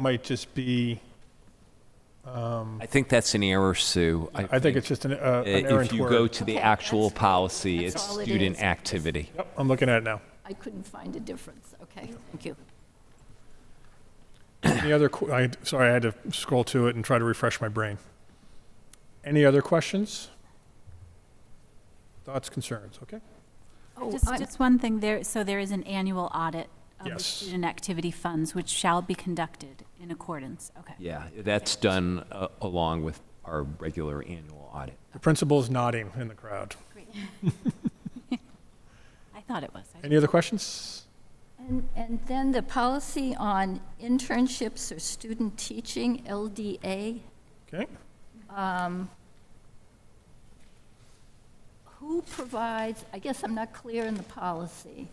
might just be, I think that's an error, Sue. I think it's just an uh, i- an errant If you go word. to the Okay, actual that's- policy, that's it's all it student is. activity. Yep, I'm looking at it now. I couldn't find a difference. Okay, thank you. Any other, que- I, sorry, I had to scroll to it and try to refresh my brain. Any other questions? Thoughts, concerns, okay? Oh, Just, I'm- just one thing there, so there is an annual audit of the Yes. student activity funds, which shall be conducted in accordance, okay. Yeah, that's done uh, along with our regular annual audit. The principal's nodding in the crowd. I thought it was. I- Any other questions? And, and then the policy on internships or student teaching, LDA, Okay, who provides, I guess I'm not clear in the policy.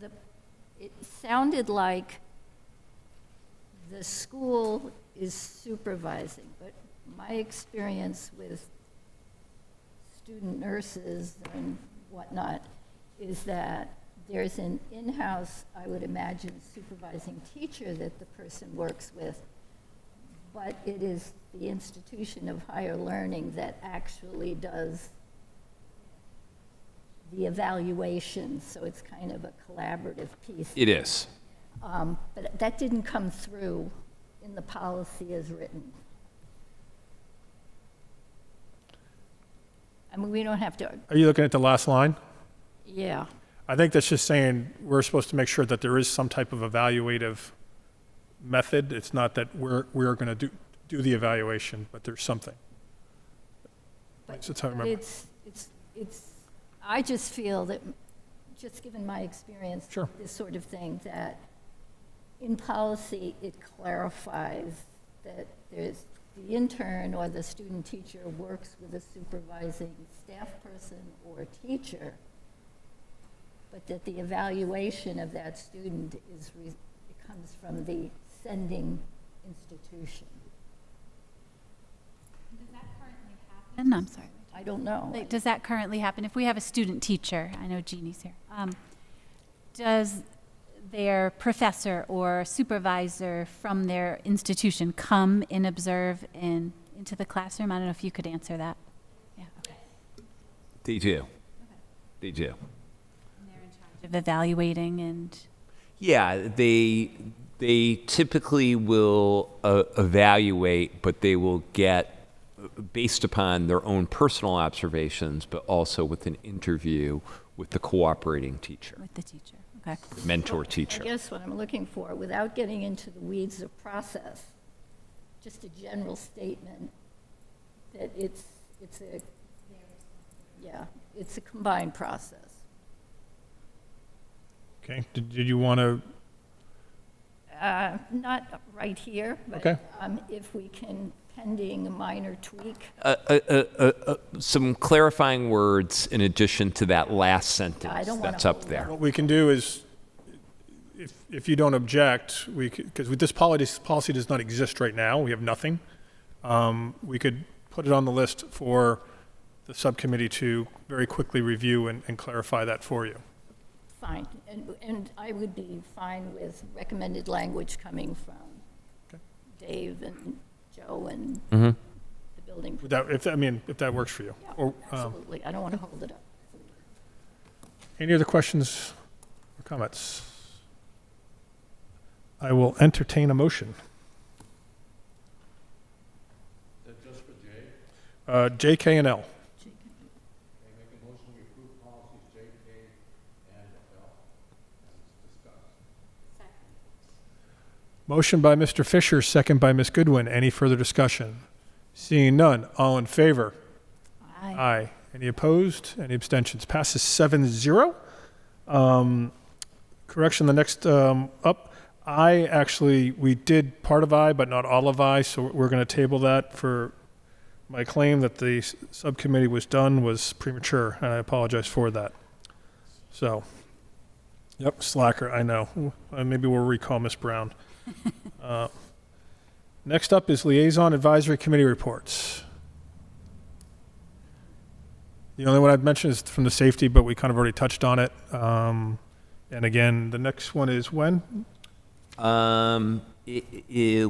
The, it sounded like the school is supervising, but my experience with student nurses and whatnot is that there's an in-house, I would imagine, supervising teacher that the person works with, but it is the institution of higher learning that actually does the evaluation, so it's kind of a collaborative piece. It is. Um, But that didn't come through in the policy as written. I mean, we don't have to, are you looking at the last line? yeah. I think that's just saying we're supposed to make sure that there is some type of evaluative method. It's not that we're, we're going to do, do the evaluation, but there's something. That's how I remember. It's, it's, it's, I just feel that, just given my experience. with Sure. This sort of thing, that in policy, it clarifies that there's, the intern or the student teacher works with a supervising staff person or teacher, but that the evaluation of that student is, re- it comes from the sending institution. And I'm sorry. I don't know. Like, does that currently happen? If we have a student teacher, I know Jeannie's here, um, does their professor or supervisor from their institution come and observe in, into the classroom? I don't know if you could answer that. Yeah, okay. They do. They do. Of evaluating and, Yeah, they, they typically will uh, evaluate, but they will get, uh, based upon their own personal observations, but also with an interview with the cooperating teacher, with the teacher, okay. mentor I teacher. guess what I'm looking for, without getting into the weeds of process, just a general statement that it's, it's a, yeah, it's a combined process. Okay, did, did you want to, Uh, Not right here, Okay. but um, if we can, pending a minor tweak, some clarifying words in addition to that last I sentence don't wanna that's up hold there. what we can do is, if, if you don't object, we, because this policy, policy does not exist right now, we have nothing. Um, We could put it on the list for the subcommittee to very quickly review and, and clarify that for you. fine. And, and I would be fine with recommended language coming from Okay. Mm-hmm. Dave and Joe and Mhm. the building. Would that, if, that- I mean, if that works for you. Yeah, Or, um, Absolutely, I don't want to hold it up. Any other questions or comments? I will entertain a motion. Is that just for J? Uh, J, K, and L. Motion by Mr. Fisher, second by Ms. Goodwin. Any further discussion? Seeing none, all in favor? Aye. Aye. Any opposed? Any abstentions? Passes 7-0. Um, Correction, the next um, up, I actually, we did part of I, but not all of I, so we're going to table that for, my claim that the s- subcommittee was done was premature, and I apologize for that. So, yep, slacker, I know. Uh, Maybe we'll recall Ms. Brown. Uh, Next up is Liaison Advisory Committee Reports. The only one I'd mention is from the safety, but we kind of already touched on it. Um, and again, the next one is when? Um, i- i-